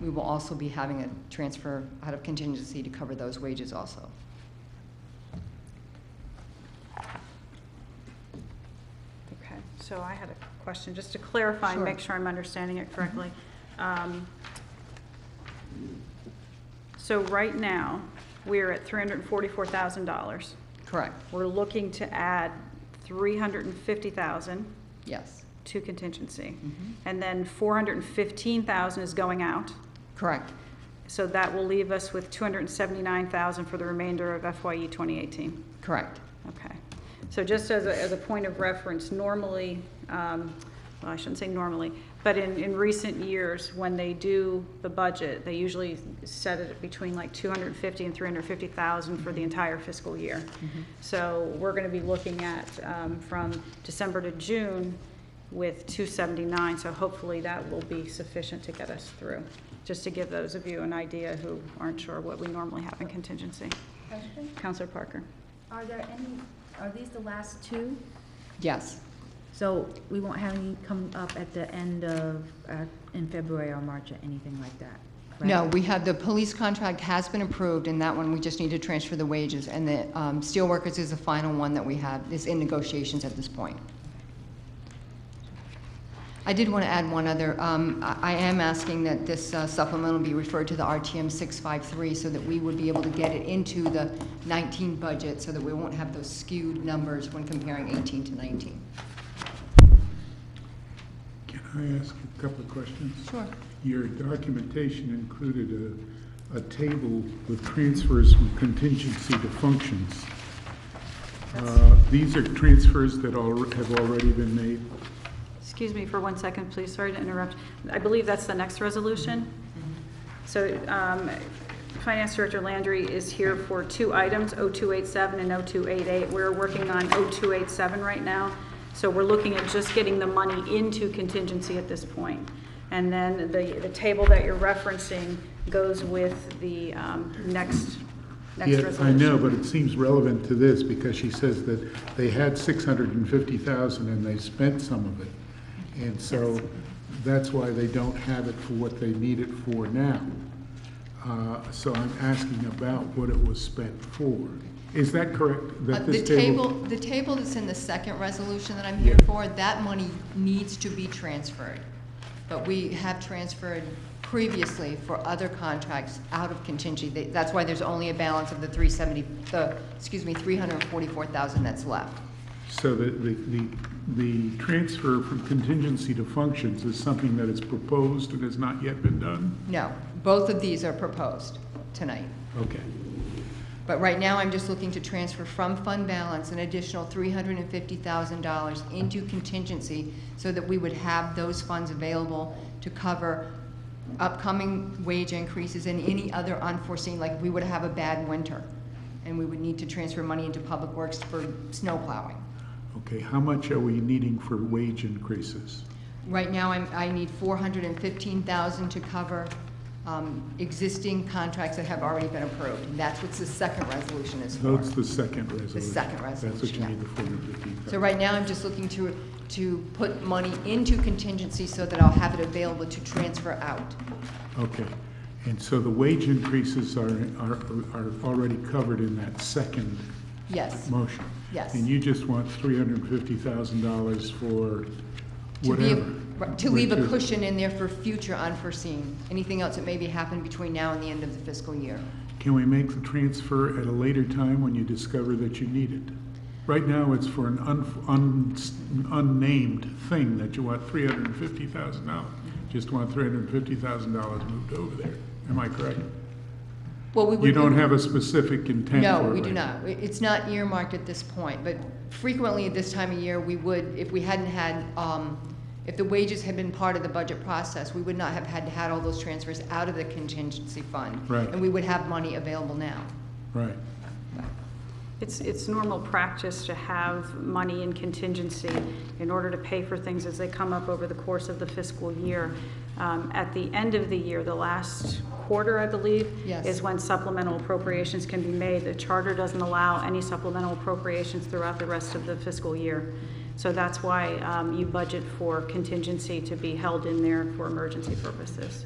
we will also be having a transfer out of contingency to cover those wages also. Okay, so I had a question, just to clarify and Sure. make sure I'm understanding it correctly. Um, So right now, we're at $344,000. Correct, We're looking to add 350,000 yes. to contingency. Mhm. And then 415,000 is going out, Correct, so that will leave us with 279,000 for the remainder of E FYE 2018. correct. Okay. So just as a, as a point of reference, normally, um, well, I shouldn't say normally, but in, in recent years, when they do the budget, they usually set it between like 250 and 350,000 for the entire fiscal year. So we're going to be looking at, um, from December to June with 279, so hopefully that will be sufficient to get us through. Just to give those of you an idea who aren't sure what we normally have in contingency. Question? Counselor Parker? Are there any, are these the last two? Yes, So we won't have any come up at the end of, uh, in February or March or anything like that? correct? no, we have, the police contract has been approved, and that one, we just need to transfer the wages. And the um, steelworkers is the final one that we have, is in negotiations at this point. I did want to add one other. Um, I I am asking that this uh, supplemental be referred to the RTM 653 so that we would be able to get it into the 19 budget so that we won't have those skewed numbers when comparing 18 to 19. Can I ask a couple of questions? Sure. Your documentation included a, a table with transfers from contingency to functions. Uh, These are transfers that al- have already been made? Excuse me for one second, please, sorry to interrupt. I believe that's the next resolution. So um, Finance Director Landry is here for two items, 0287 and 0288. We're working on 0287 right now, so we're looking at just getting the money into contingency at this point. And then the, the table that you're referencing goes with the um, next, next Yeah, resolution. I know, but it seems relevant to this because she says that they had six hundred and fifty thousand and they spent some of it. And so that's why they don't have it for what they need it for now. Uh, So I'm asking about what it was spent for. Is that correct? Uh, That The this table, the table that's in the second resolution that I'm here Yeah. for, that money needs to be transferred. But we have transferred previously for other contracts out of contingency. They- That's why there's only a balance of the 370, the, excuse me, 344,000 that's left. So the, the, the, the transfer from contingency to functions is something that is proposed and has not yet been done? No, both of these are proposed tonight. Okay. But right now, I'm just looking to transfer from fund balance an additional $350,000 into contingency so that we would have those funds available to cover upcoming wage increases and any other unforeseen, like we would have a bad winter, and we would need to transfer money into public works for snow plowing. Okay, how much are we needing for wage increases? Right now, I'm, I need 415,000 to cover um, existing contracts that have already been approved. And That's what the second resolution is for. That's the second resolution. second That's what resolution, you yeah. need, the 415,000. So right now, I'm just looking to, to put money into contingency so that I'll have it available to transfer out. Okay, and so the wage increases are, are, are already covered in that second Yes, motion? Yes. And you just want $350,000 for to be, whatever? right, to leave a which is- cushion in there for future unforeseen, anything else that maybe happened between now and the end of the fiscal year. Can we make the transfer at a later time when you discover that you need it? Right now, it's for an un- un- unnamed thing that you want $350,000. Just want $350,000 moved over there. Am I correct? Well, we would. You don't have a specific intent for it No, we do right now. not. It- It's not earmarked at this point, but frequently at this time of year, we would, if we hadn't had, um, if the wages had been part of the budget process, we would not have had, had all those transfers out of the contingency fund. Right. And we would have money available now. Right. It's, it's normal practice to have money in contingency in order to pay for things as they come up over the course of the fiscal year. Um, At the end of the year, the last quarter, I believe, Yes. is when supplemental appropriations can be made. The charter doesn't allow any supplemental appropriations throughout the rest of the fiscal year. So that's why um, you budget for contingency to be held in there for emergency purposes.